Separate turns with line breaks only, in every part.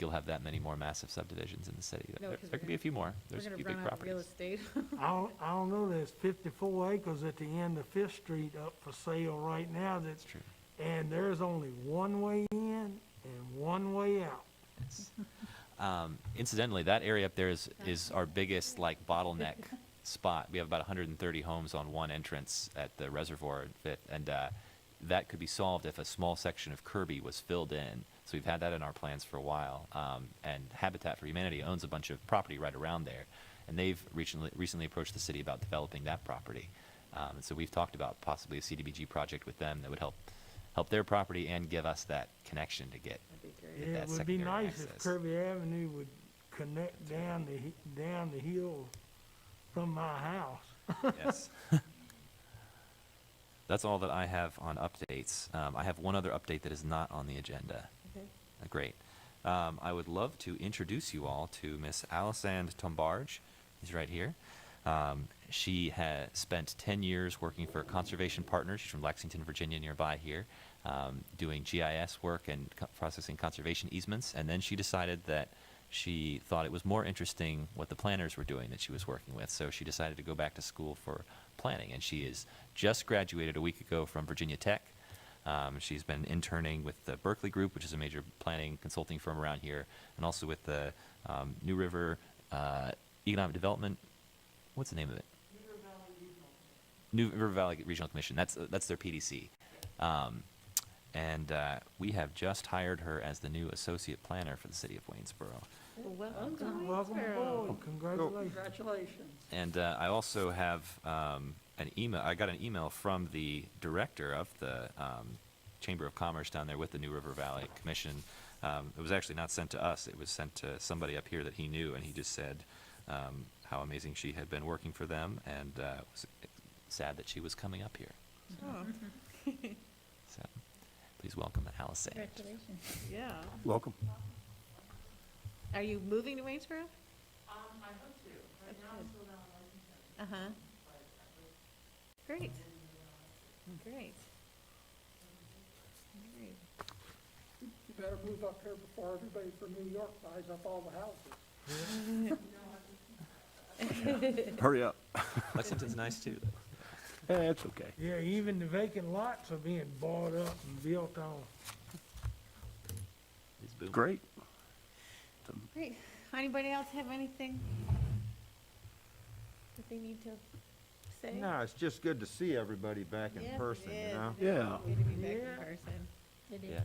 you'll have that many more massive subdivisions in the city.
No,
There
'cause we're
there could be
gonna-
a few more.
We're
There's a
gonna
few
run
big
out of real
properties.
estate.
I don't, I don't know, there's fifty-four acres at the end of Fifth Street up for sale right now
It's
that's,
true.
and there's only one way in and one way out.
It's- um, Incidentally, that area up there is, is our biggest like bottleneck spot. We have about hundred and thirty homes on one entrance at the reservoir at Fifth, and, uh, that could be solved if a small section of Kirby was filled in. So we've had that in our plans for a while. Um, and Habitat for Humanity owns a bunch of property right around there. And they've recently, recently approached the city about developing that property. Um, and so we've talked about possibly a CDBG project with them that would help, help their property and give us that connection to get
That'd be great.
Get
It
that
would be
secondary
nice if
access.
Kirby Avenue would connect down the, he- down the hill from my house.
Yes. That's all that I have on updates. Um, I have one other update that is not on the agenda.
Okay.
Uh, Great. Um, I would love to introduce you all to Miss Alisande Tombarge. She's right here. Um, she has spent 10 years working for Conservation Partners. She's from Lexington, Virginia, nearby here, um, doing GIS work and co- processing conservation easements. And then she decided that she thought it was more interesting what the planners were doing that she was working with. So she decided to go back to school for planning. And she is just graduated a week ago from Virginia Tech. Um, she's been interning with the Berkeley Group, which is a major planning consulting firm around here, and also with the um, New River uh, Economic Development. What's the name of it? New River Valley Regional Commission. That's that's their PDC. Um, and uh, we have just hired her as the new associate planner for the city of Waynesboro.
Welcome to
Welcome
Waynesboro.
aboard, congratulations.
Congratulations.
And uh, I also have um, an email. I got an email from the director of the um, Chamber of Commerce down there with the New River Valley Commission. Um, it was actually not sent to us. It was sent to somebody up here that he knew, and he just said um, how amazing she had been working for them, and uh, was sad that she was coming up here. So, please welcome Allison.
Congratulations.
Yeah.
Welcome.
Mm-hmm. Are you moving to Waynesboro? Um, I hope to. Right now, I'm still down in Lexington. Uh-huh. Great. Great. Great.
You better move up here before everybody from New York buys up all the houses.
Hurry up.
Lexington's nice too.
That's okay.
Yeah, even the vacant lots are being bought up and built on.
It's booming.
Great.
Great. Anybody else have anything that they need to say?
No, it's just good to see everybody back in
Yes, it
person,
is.
you know?
It is
Yeah.
lovely to be back in
Yeah.
person. It
Yeah.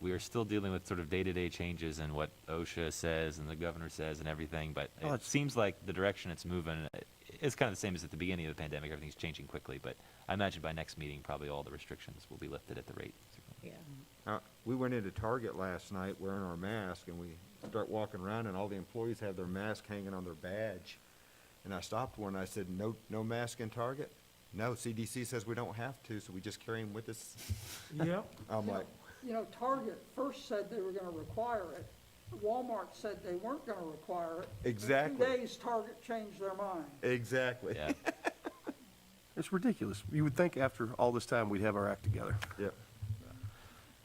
We are still dealing with sort of day-to-day changes in what OSHA says and the governor says and everything, but
Oh,
it
it's-
seems like the direction it's moving, uh, it's kind of the same as at the beginning of the pandemic. Everything's changing quickly, but I imagine by next meeting, probably all the restrictions will be lifted at the rate.
Yeah.
Uh, We went into Target last night wearing our mask, and we start walking around, and all the employees have their mask hanging on their badge. And I stopped one, I said, no, no mask in Target? No, CDC says we don't have to, so we just carry them with us.
Yep,
I'm like,
You know, Target first said they were gonna require it. Walmart said they weren't gonna require it.
Exactly.
Two days, Target changed their mind.
exactly.
Yeah,
It's ridiculous. You would think after all this time, we'd have our act together,
Yep.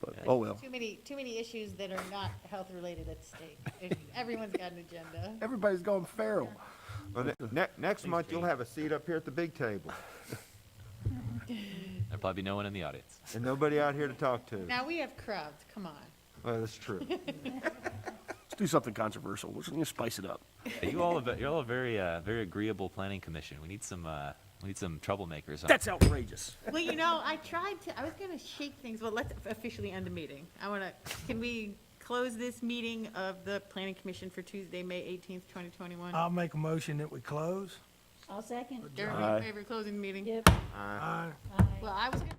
but, oh well.
Too many, too many issues that are not health-related at stake. There's- Everyone's got an agenda.
Everybody's gone feral.
Well, ne- ne- Next month, you'll have a seat up here at the big table,
there'll probably be no one in the audience.
and nobody out here to talk to.
Now, we have crowds, come on.
Well, that's true.
Let's do something controversial. Let's let's spice it up.
Yeah, You all, are ve- you're all a very, uh, very agreeable planning commission. We need some, uh, we need some troublemakers. on-
That's outrageous.
Well, you know, I tried to, I was gonna shake things, well, let's officially end the meeting. I wanna, can we close this meeting of the planning commission for Tuesday, May eighteenth, twenty twenty-one?
I'll make a motion that we close.
I'll second.
Everybody in favor of closing the meeting?
Yep.
Aye.
Well, I was gonna.